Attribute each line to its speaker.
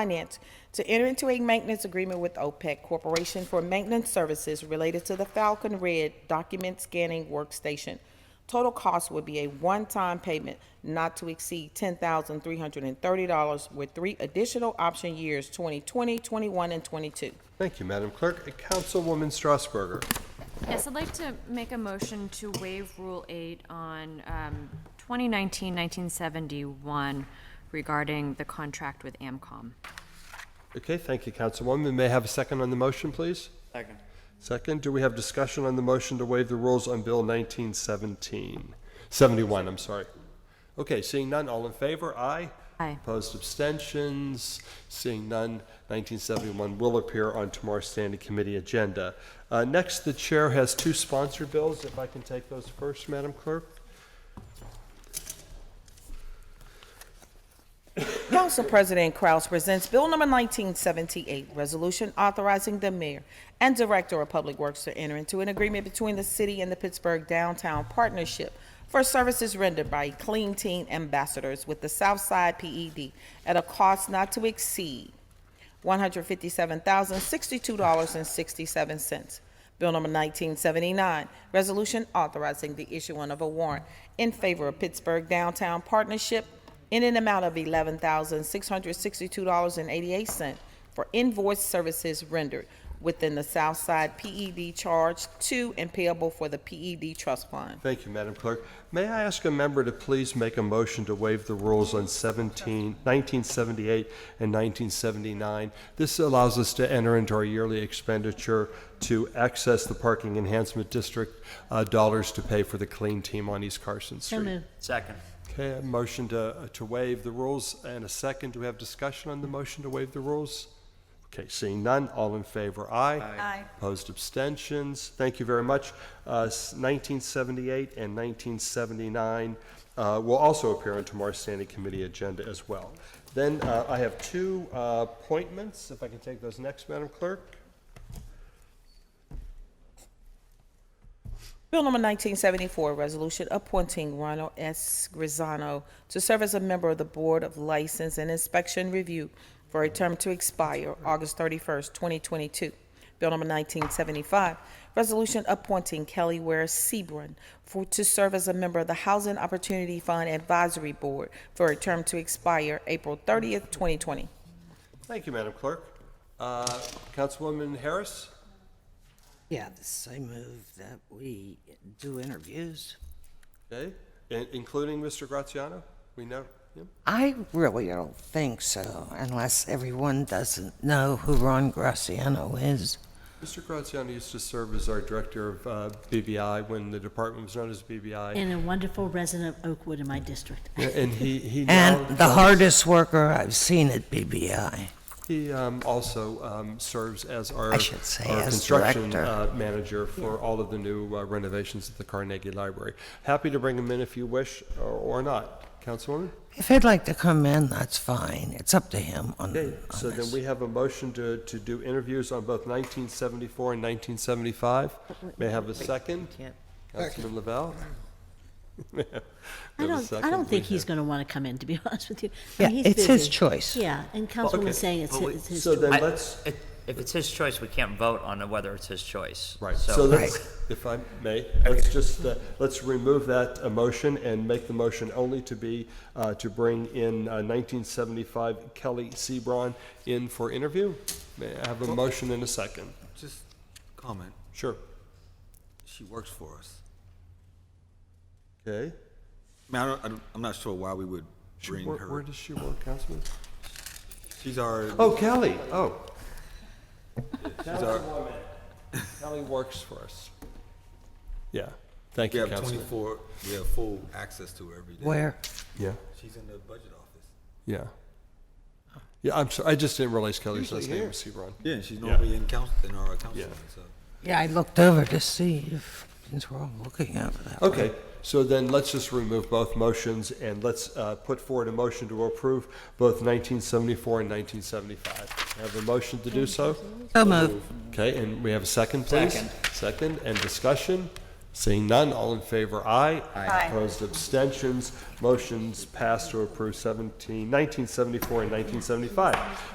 Speaker 1: Finance to enter into a maintenance agreement with OPEC Corporation for maintenance services related to the Falcon Red document scanning workstation. Total cost would be a one-time payment not to exceed ten thousand three hundred and thirty dollars with three additional option years, 2020, 21, and twenty-two.
Speaker 2: Thank you, Madam Clerk. Uh, Councilwoman Strasburger.
Speaker 3: Yes, I'd like to make a motion to waive Rule 8 on um, 2019-1971 regarding the contract with AMCOM.
Speaker 2: Okay, thank you, Councilwoman. May I have a second on the motion, please?
Speaker 4: Second.
Speaker 2: Second, do we have discussion on the motion to waive the rules on Bill 1917, 71, I'm sorry? Okay, seeing none, all in favor, aye?
Speaker 3: Aye.
Speaker 2: Opposed, abstentions, seeing none, 1971 will appear on tomorrow's standing committee agenda. Uh, Next, the chair has two sponsored bills, if I can take those first, Madam Clerk?
Speaker 1: Council President Kraus presents Bill Number 1978, Resolution Authorizing the Mayor and Director of Public Works to enter into an agreement between the city and the Pittsburgh Downtown Partnership for services rendered by Clean Teen Ambassadors with the Southside PED at a cost not to exceed $157,062.67. Bill number 1979, resolution authorizing the issuing of a warrant in favor of Pittsburgh Downtown Partnership in an amount of $11,662.88 for invoice services rendered within the Southside PED Charge 2 and payable for the PED Trust Fund.
Speaker 2: Thank you, Madam Clerk. May I ask a member to please make a motion to waive the rules on 17, 1978 and 1979? This allows us to enter into our yearly expenditure to access the Parking Enhancement District uh, dollars to pay for the clean team on East Carson Street.
Speaker 4: Second.
Speaker 2: Okay, a motion to uh, to waive the rules and a second. Do we have discussion on the motion to waive the rules? Okay, seeing none, all in favor, aye. Aye. Opposed, abstentions. Thank you very much. Uh, s- 1978 and 1979 uh, will also appear on tomorrow's standing committee agenda as well. Then uh, I have two uh, appointments, if I can take those next, Madam Clerk.
Speaker 1: Bill number 1974, resolution appointing Ronald S. Grisano to serve as a member of the Board of License and Inspection Review for a term to expire August 31st, 2022. Bill number 1975, resolution appointing Kelly Ware Sebron for, to serve as a member of the Housing Opportunity Fund Advisory Board for a term to expire April 30th, 2020.
Speaker 2: Thank you, Madam Clerk. Uh, Councilwoman Harris?
Speaker 5: Yeah, this, I move that we do interviews.
Speaker 2: Okay, in- including Mr. Graziano? We know him?
Speaker 5: I really don't think so, unless everyone doesn't know who Ron Graciano is.
Speaker 2: Mr. Graziano used to serve as our director of uh, BBI when the department was known as BBI,
Speaker 6: And a wonderful resident of Oakwood in my district.
Speaker 2: and he he now
Speaker 5: And the hardest worker I've seen at BBI.
Speaker 2: he um, also um, serves as our
Speaker 5: I should say
Speaker 2: our
Speaker 5: as
Speaker 2: construction
Speaker 5: director.
Speaker 2: uh, manager for all of the new uh, renovations at the Carnegie Library. Happy to bring him in if you wish or, or not, Councilwoman.
Speaker 5: If he'd like to come in, that's fine. It's up to him on,
Speaker 2: Okay,
Speaker 5: on
Speaker 2: so then
Speaker 5: this.
Speaker 2: we have a motion to, to do interviews on both 1974 and 1975. May I have a second? Councilman Lavelle. May I have
Speaker 6: I
Speaker 2: a
Speaker 6: don't, I
Speaker 2: second,
Speaker 6: don't think
Speaker 2: please?
Speaker 6: he's going to want to come in, to be honest with you. I
Speaker 5: Yeah,
Speaker 6: mean, he's
Speaker 5: it's his
Speaker 6: busy.
Speaker 5: choice.
Speaker 6: Yeah, and
Speaker 2: okay.
Speaker 6: Councilwoman saying it's
Speaker 4: But we-
Speaker 6: his- it's his
Speaker 2: So
Speaker 6: choice.
Speaker 2: then let's.
Speaker 4: If it's his choice, we can't vote on whether it's his choice.
Speaker 2: Right, so let's, if I may, let's just, uh, let's remove that uh, motion and make the motion only to be, uh, to bring in uh, 1975 Kelly Sebron in for interview. May I have a motion in a second?
Speaker 7: Just comment,
Speaker 2: Sure.
Speaker 7: she works for us.
Speaker 2: Okay.
Speaker 7: I mean, I don't, I don't, I'm not sure why we would bring
Speaker 2: Where, where
Speaker 7: her.
Speaker 2: does she work, Councilman?
Speaker 7: She's our,
Speaker 2: Oh, Kelly, oh.
Speaker 7: she's our,
Speaker 2: Kelly works for us. Yeah, thank
Speaker 7: we
Speaker 2: you,
Speaker 7: have
Speaker 2: Councilman.
Speaker 7: twenty-four, we have full access to her every day.
Speaker 5: Where?
Speaker 2: Yeah,
Speaker 7: She's in the budget office.
Speaker 2: yeah. Yeah, I'm sorry, I just didn't realize Kelly's last name was Sebron.
Speaker 7: Yeah, and she's normally in council, in our council,
Speaker 2: Yeah.
Speaker 7: so.
Speaker 5: Yeah, I looked over to see if, since we're all looking over that. way.
Speaker 2: Okay, so then let's just remove both motions and let's uh, put forward a motion to approve both 1974 and 1975. Have a motion to do so?
Speaker 5: So moved.
Speaker 2: Okay, and we have a second, please?
Speaker 4: Second.
Speaker 2: Second, and discussion? Seeing none, all in favor, aye. Aye. Opposed, abstentions, motions passed to approve 17, 1974 and 1975.